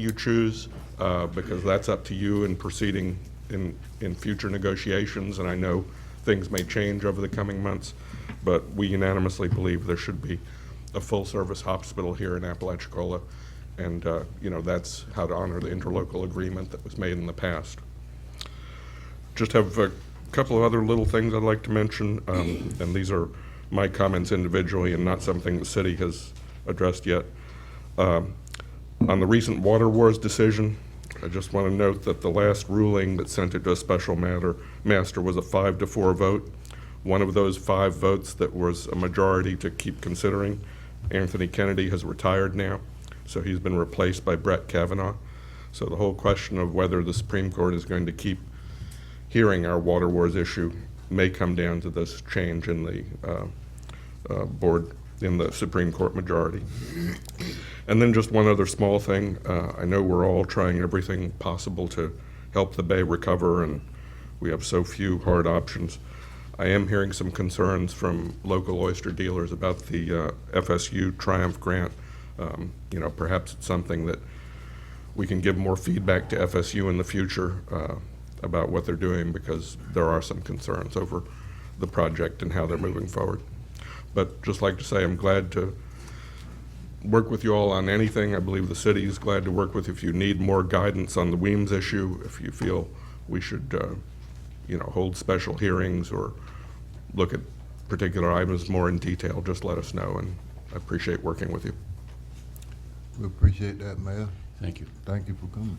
you choose, uh, because that's up to you in proceeding in, in future negotiations, and I know things may change over the coming months, but we unanimously believe there should be a full-service hospital here in Apalachicola, and, uh, you know, that's how to honor the interlocal agreement that was made in the past. Just have a couple of other little things I'd like to mention, um, and these are my comments individually and not something the city has addressed yet. Um, On the recent Water Wars decision, I just want to note that the last ruling that sent it to a special matter, master was a five to four vote. One of those five votes that was a majority to keep considering, Anthony Kennedy has retired now, so he's been replaced by Brett Kavanaugh. So the whole question of whether the Supreme Court is going to keep hearing our water wars issue may come down to this change in the uh, uh, board, in the Supreme Court majority. And then just one other small thing. Uh, I know we're all trying everything possible to help the Bay recover, and we have so few hard options. I am hearing some concerns from local oyster dealers about the uh, FSU Triumph grant. Um, you know, perhaps it's something that we can give more feedback to FSU in the future uh, about what they're doing because there are some concerns over the project and how they're moving forward. But just like to say, I'm glad to work with you all on anything. I believe the city is glad to work with you. If you need more guidance on the Weems issue, if you feel we should, uh, you know, hold special hearings or look at particular items more in detail, just let us know, and I appreciate working with you. We appreciate that, Mayor. Thank you. Thank you for coming.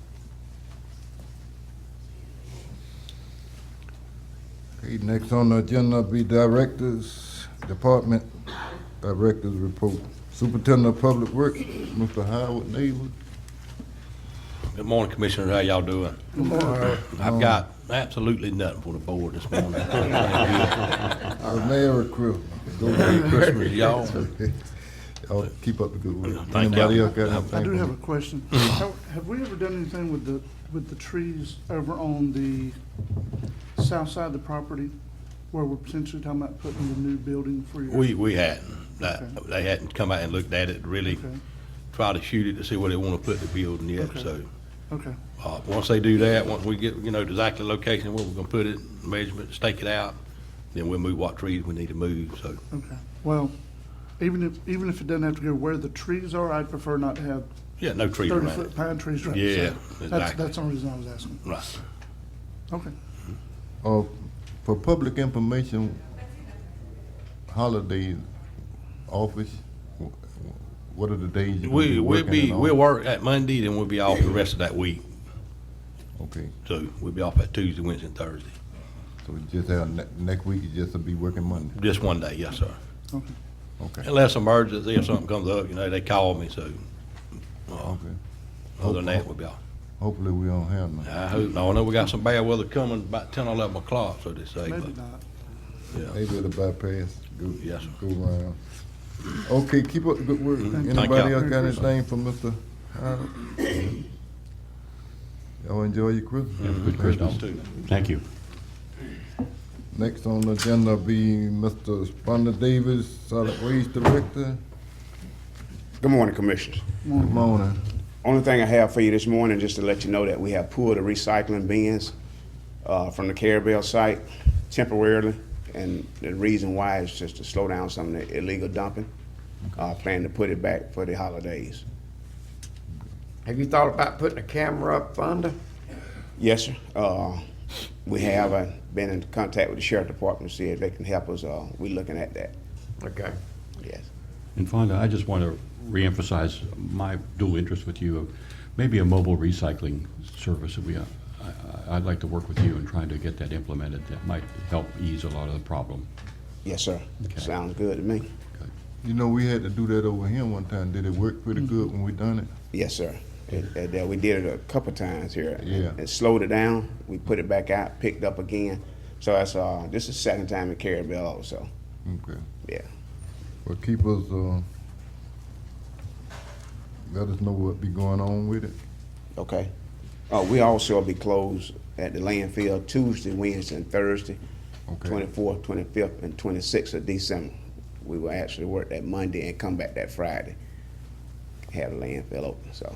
Okay, next on the agenda be directors, department directors report. Superintendent of Public Works, Mr. Howard Neighbor. Good morning, Commissioners. How y'all doing? Good morning. I've got absolutely nothing for the board this morning. Uh, Merry Christmas. Go Merry ahead. Christmas, y'all. Y'all keep up the good work. Thank Anybody y'all. else got anything? I do have a question. Have have we ever done anything with the, with the trees over on the south side of the property where we're potentially talking about putting the new building for your? We, we hadn't. That- They hadn't come out and looked at it, really Okay. try to shoot it to see where they want to put the building yet. Okay. So, Okay, uh, once they do that, once we get, you know, the exact location where we're going to put it, measurement, stake it out, then we'll move what trees we need to move, so. okay. Well, even if, even if it doesn't have to go where the trees are, I'd prefer not to have Yeah, no trees around it. thirty-foot pine trees right Yeah, there. That's, exactly. that's the only reason I was asking. Right. Okay. Uh, for public information, holidays, office, wh- wh- what are the days you We, we'll working be, and all? we'll work that Monday, then we'll be off the rest of that week. Okay, So we'll be off at Tuesday, Wednesday, and Thursday. so you just have, ne- next week, you just will be working Monday, Just one day, yes, sir. Okay. okay, Unless emergency or something comes up, you know, they call me, so okay. other than that, we'll be off. Hopefully we don't have none. I hope, I know we got some bad weather coming about ten or eleven o'clock, so they say, Maybe but, not. yeah. Maybe it'll bypass, go, Yes, sir. go around. Okay, keep up the good work. you. Anybody else got anything for Mister Howard? Y'all enjoy your Christmas. Good Christmas too. Thank you. Next on the agenda be Mr. Sponda Davis, Solid Waste Director. Good morning, Commissioners. Good morning. Only thing I have for you this morning, just to let you know that we have pulled the recycling bins uh, from the Carabel site temporarily. And the reason why is just to slow down some of the illegal dumping. Uh, Plan to put it back for the holidays. Have you thought about putting a camera up under? Yes, sir. Uh, We have uh, been in contact with the Sheriff Department to see if they can help us. Uh, We looking at that, Okay. yes. And Fonda, I just want to reemphasize my dual interest with you of maybe a mobile recycling service. that We, uh, I- I- I'd like to work with you in trying to get that implemented. That might help ease a lot of the problem. Yes, sir. Okay. Sounds good to me. You know, we had to do that over here one time. Did it work pretty good when we done it? Yes, sir. And- and, uh, we did it a couple times here. and- Yeah. And slowed it down. We put it back out, picked up again. So that's, uh, this is second time in Carabel also. Okay. Yeah. Well, keep us, uh, let us know what be going on with it. Okay. Uh, we also will be closed at the landfill Tuesday, Wednesday, and Thursday, Okay. twenty-fourth, twenty-fifth, and twenty-sixth of December. We will actually work that Monday and come back that Friday. Have the landfill open, so.